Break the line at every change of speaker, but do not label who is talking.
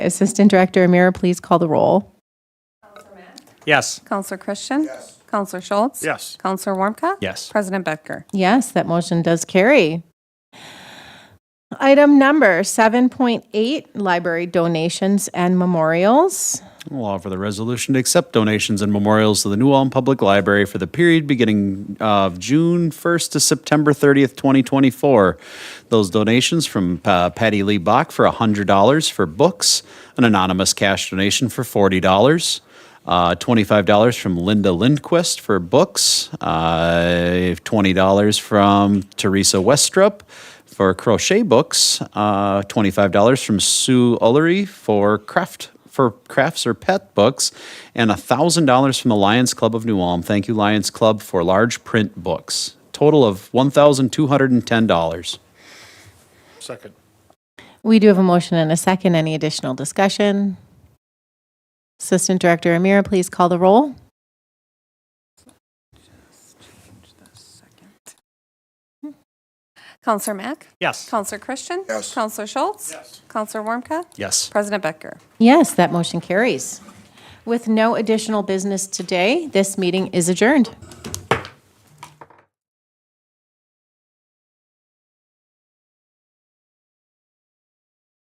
Assistant Director Amira, please call the roll.
Yes.
Counselor Christian? Yes. Counselor Schultz?
Yes.
Counselor Warmka?
Yes.
President Becker?
Yes, that motion does carry. Item number 7.8, Library Donations and Memorials.
We'll offer the resolution to accept donations and memorials to the New Ulm Public Library for the period beginning of June 1st to September 30th, 2024. Those donations from uh, Patty Lee Bach for $100 for books, an anonymous cash donation for $40. Uh, $25 from Linda Lindquist for books, uh, $20 from Teresa Westrup for crochet books, uh, $25 from Sue Ullery for craft for crafts or pet books, and $1,000 from the Lions Club of New Ulm. Thank you, Lions Club, for large print books. Total of $1,210.
Second.
We do have a motion and a second. Any additional discussion? Assistant Director Amira, please call the roll.
Counselor Mack?
Yes.
Counselor Christian? Yes. Counselor Schultz? Yes. Counselor Warmka?
Yes.
President Becker?
Yes, that motion carries. With no additional business today, this meeting is adjourned.